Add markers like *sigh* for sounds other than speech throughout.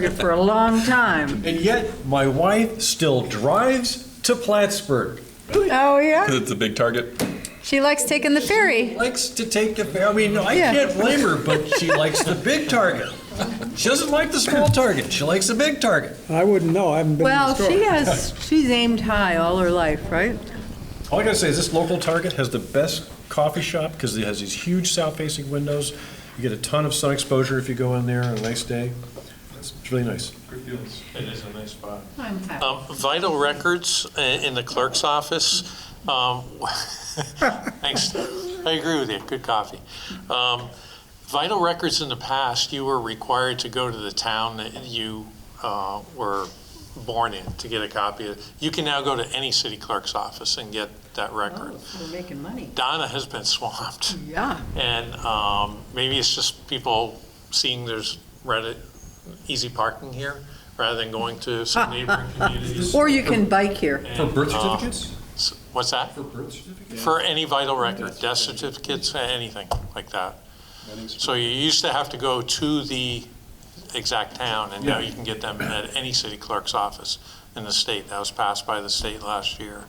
target for a long time. And yet, my wife still drives to Plattsburgh. Oh, yeah. Because it's a big target. She likes taking the ferry. Likes to take the, I mean, I Yeah. can't blame her, but she likes the big target. She doesn't like the small target. She likes the big target. I wouldn't know, I haven't been in the Well, store. she has, she's aimed high all her life, right? All I gotta say is this local Target has the best coffee shop because it has these huge south-facing windows. You get a ton of sun exposure if you go in there on a nice day. It's it's really nice. It is a nice spot. I'm happy. Um, Vital records i- in the clerk's office, um, *laughs* thanks, I agree with you, good coffee. Um, Vital records in the past, you were required to go to the town that you uh, were born in to get a copy of. You can now go to any city clerk's office and get that record. We're making money. Donna has been swamped. Yeah. And um, maybe it's just people seeing there's Reddit, easy parking here, rather than going to some neighboring communities. Or you can bike here. For birth And, uh, certificates? s- What's that? For birth certificates? For any vital record, death certificates, anything like that. So you used to have to go to the exact town, and now you can get them at any city clerk's office in the state. That was passed by the state last year.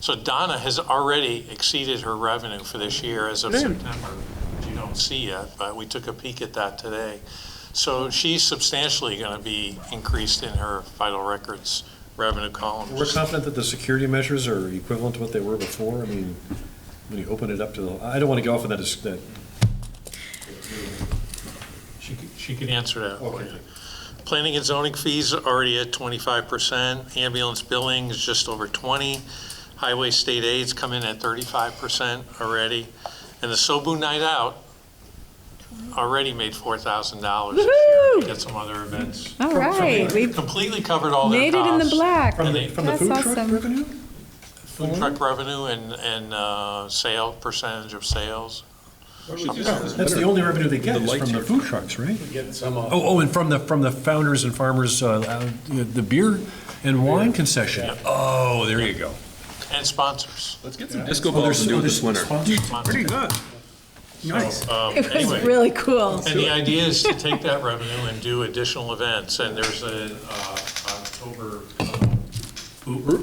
So Donna has already exceeded her revenue for this year as of September, which you don't see yet, but we took a peek at that today. So she's substantially going to be increased in her vital records revenue column. We're confident that the security measures are equivalent to what they were before. I mean, when you open it up to the, I don't want to go off on that, dis- that She could- She could answer that. for Okay. you. Planning and zoning fees are already at 25%, ambulance billing is just over 20, highway state aids come in at 35% already, and the Sobu Night Out already made $4,000 this year to get some other events. All right. We Completely covered all their made costs. it in the black. from the, That's from the food truck awesome. revenue? Food truck revenue and, and uh, sale, percentage of sales. That's the only revenue they get The is lights from the here. food trucks, right? Oh, oh, and from the, from the founders and farmers, uh, uh, the beer and wine concession. Oh, there you go. And sponsors. Let's get some Oh, disco balls and do it this winter. Pretty good. Nice. Um, It was anyway. really cool. And the idea is to take that revenue and do additional events, and there's a uh, October, Brew,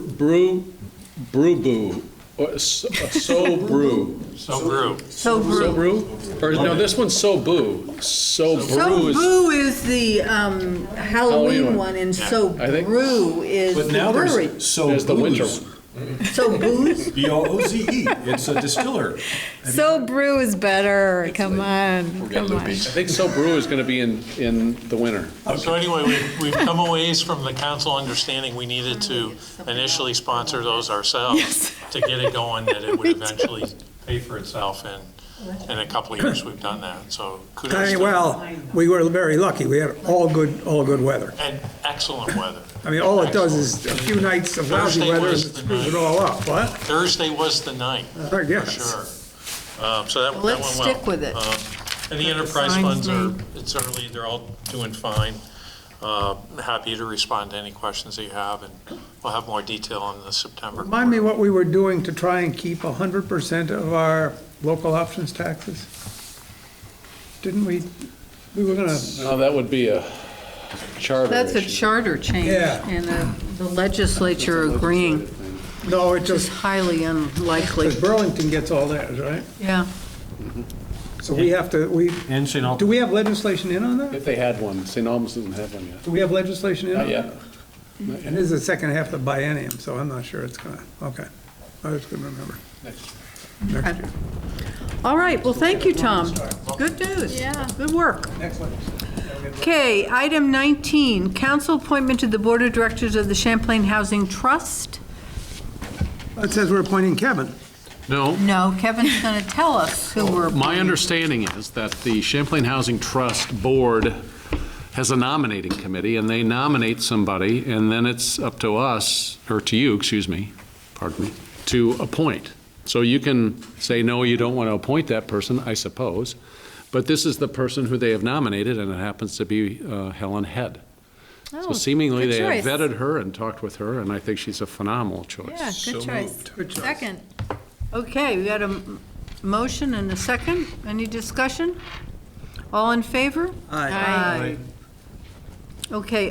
brew boo, or so *laughs* so brew. so brew. So So Brew. brew? Or no, this one's so boo. So brew So is. Brew is the um, Halloween Halloween one. one, and So I think- Brew is the But now brewery. there's So There's the winter Booze, So Booze? B O O Z E. It's a distiller. So brew is better. Come on. Come on. I think so brew is gonna be in, in the winter. So anyway, we- we've come a ways from the council understanding we needed Oh, to initially sponsor those ourselves to get it going, *laughs* that it would eventually pay for itself, and in a couple of years, we've done that, so I kudos. mean, to- well, we were very lucky. We had all good, all good weather. And excellent weather. I mean, all it does is a few nights of lousy Thursday weather and it was the screws it night. all up. What? Thursday was the night. I guess. For sure. Um, So that that went well. Let's stick with it. Um, And the enterprise Signs funds are, it's early, they're all doing fine. Uh, Happy to respond to any questions that you have, and we'll have more detail on the September. Remind me what we were doing to try and keep 100% of our local options taxes? Didn't we, we were gonna, Now, that would be a charter That's a issue. charter change, Yeah. and uh, the legislature agreeing no, it is just, highly unlikely. because Burlington gets all that, right? Yeah. So we have to, we, And *laughs* St. Albans. do we have legislation in on that? If they had one, St. Albans doesn't have one yet. Do we have legislation in on Not that? yet. And this is the second half of the biennium, so I'm not sure it's gonna, okay. I just couldn't remember. Next year. All right, well, thank you, Tom. Good news. Yeah. Good work. Next one. Okay, item 19, council appointment to the Board of Directors of the Champlain Housing Trust. It says we're appointing Kevin. No, No, Kevin's going to tell us who we're My appointing. understanding is that the Champlain Housing Trust Board has a nominating committee, and they nominate somebody, and then it's up to us, or to you, excuse me, pardon me, to appoint. So you can say, no, you don't want to appoint that person, I suppose, but this is the person who they have nominated, and it happens to be uh, Helen Head. So Oh, seemingly, good they have choice. vetted her and talked with her, and I think she's a phenomenal Oh, Yeah, choice. good choice. Second. Okay, we got a m- motion and a second. Any discussion? All in favor? Aye. Aye. Okay,